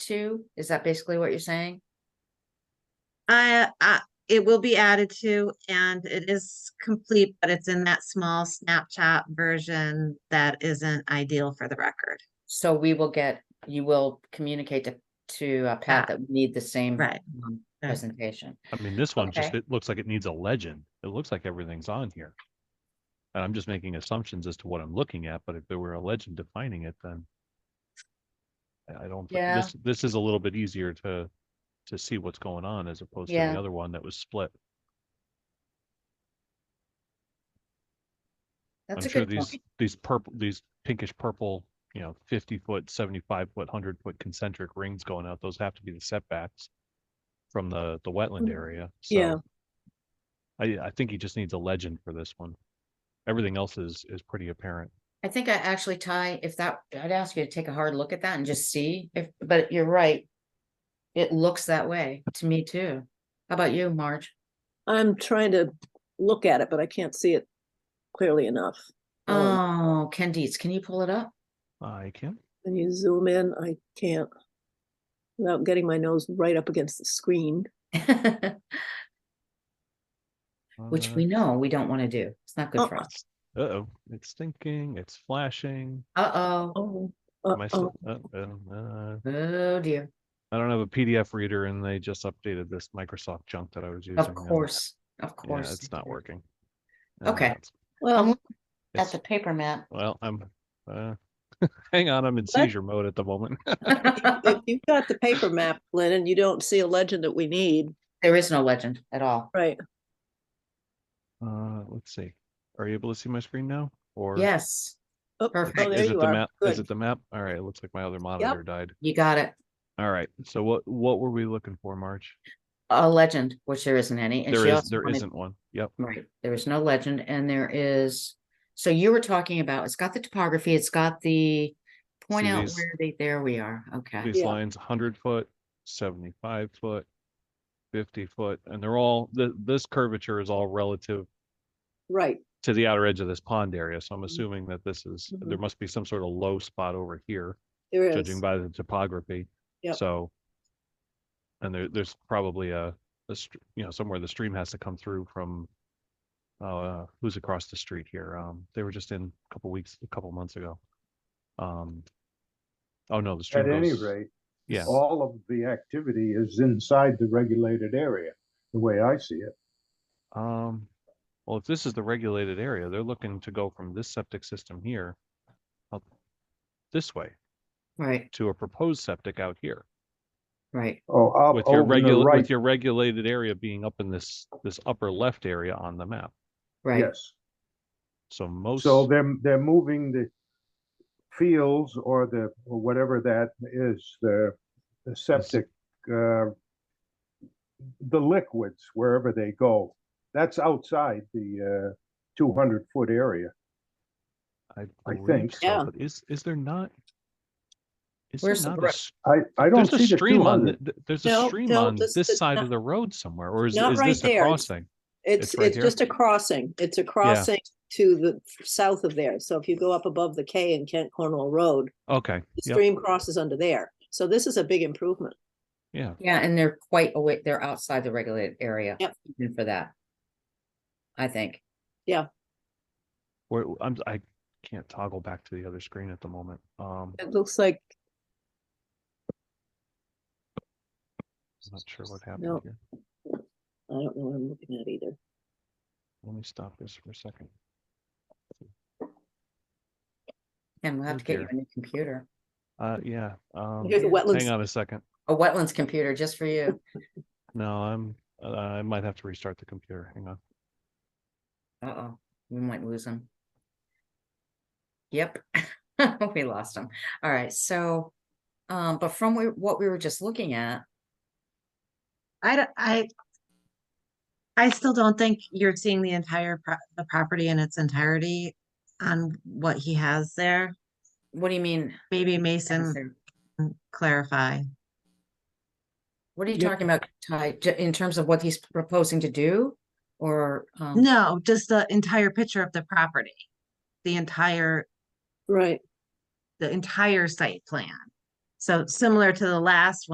to? Is that basically what you're saying? I, I, it will be added to, and it is complete, but it's in that small snapshot version that isn't ideal for the record. So we will get, you will communicate to, to uh, Pat Pat. that we need the same. Right. um, Right. Presentation. I mean, this one just, Okay. it looks like it needs a legend. It looks like everything's on here. And I'm just making assumptions as to what I'm looking at, but if there were a legend defining it, then I I don't, thi- Yeah. this, this is a little bit easier to, to see what's going on as opposed to Yeah. the other one that was split. That's I'm a sure good these, point. these purple, these pinkish purple, you know, fifty foot, seventy-five foot, hundred foot concentric rings going out, those have to be the setbacks from the, the wetland Mm-hmm. Mm. area, Yeah. so. I, I think he just needs a legend for this one. Everything else is, is pretty apparent. I think I actually, Ty, if that, I'd ask you to take a hard look at that and just see if, but you're right. It looks that way to me too. How about you, Marge? I'm trying to look at it, but I can't see it clearly enough. Um, Oh, Ken Dietz, can you pull it up? I can, When you zoom in, I can't. Without getting my nose right up against the screen. Which uh, we know we don't want to do. It's not good Uh, for us. Uh-oh, it's thinking, it's flashing. Uh-oh, Oh, Am I still, uh-oh. uh, uh, uh, oh dear. I don't have a PDF reader and they just updated this Microsoft junk that I was using. Of and course, of Yeah, course. it's not working. And Okay. that's- I'm Well, looking at it's- the paper map. Well, I'm, uh, hang on, I'm in seizure mode at the moment. if you've got the paper map, Lynn, and you don't see a legend that we need, There is no legend at all. right? Uh, let's see. Are you able to see my screen now? Or? Yes, Oh, oh, Perfect. Is there it the you are. map? Is Good. it the map? All right, it looks like my other monitor died. you got it. All right, so what, what were we looking for, March? A legend, which there isn't any. and There she is, also there wanted- isn't one. Yep, Right, there is no legend and there is, so you were talking about, it's got the topography, it's got the. Point See out these- where they, there we are, okay. these Yeah. lines, hundred foot, seventy-five foot, fifty foot, and they're all, th- this curvature is all relative Right, to the outer edge of this pond area, so Mm. I'm assuming that this is, there Mhm. must be some sort of low spot over here. there is. judging by the topography. Yep. So. And there, there's probably a, a, str- you know, somewhere the stream has to come through from. Uh, who's across the street here? Um, they were just in a couple weeks, a couple months ago. Um. Oh, no, the stream At any goes, rate, yeah, all of the activity is inside the regulated area, the way I see it. um, well, if this is the regulated area, they're looking to go from this septic system here. up This way Right, to a proposed septic out here. right, Oh, up With your over the regular, right, with your regulated area being up in this, this upper left area on the map. right. yes. So most, So they're, they're moving the fields or the, or whatever that is, the, the septic, uh, the liquids, wherever they go. That's outside the, uh, two hundred foot area. I I believe think- so, Yeah. but is, is there not? Is there Where's the not a, bre- s- I, I don't there's a see the two stream on, th- hundred. th- there's a No, stream no, on this this is side not- of the road somewhere, or is, not is right this a there. crossing? It's, It's right it's here? just a crossing. It's a crossing to the f- south of there. So if you go up above the K in Kent Cornwall Road, Okay, the yep, stream crosses under there. So this is a big improvement. yeah, Yeah, and they're quite away, they're outside the regulated area. Yep. Even for that. I think. where, I'm, I can't toggle back to the other screen at the moment, um, It looks like, I'm not sure what No. happened here. I don't know what I'm looking at either. Let me stop this for a second. And we'll have Oh, to get you dear. a new computer, Uh, yeah, um, Here's the hang wetlands. on a second, a wetlands computer just for you. no, I'm, uh, I might have to restart the computer, hang on. Uh-oh, we might lose him. Yep, we lost him. All right, so, um, but from where- what we were just looking at, I, d- I, I still don't think you're seeing the entire, pro- the property in its entirety on what he has there. what do you mean? Maybe Mason Spencer? can clarify. What are you Yeah. talking about, Ty, J- in terms of what he's proposing to do? Or, um, No, just the entire picture of the property, the entire, Right. the entire site plan. So similar to the last one.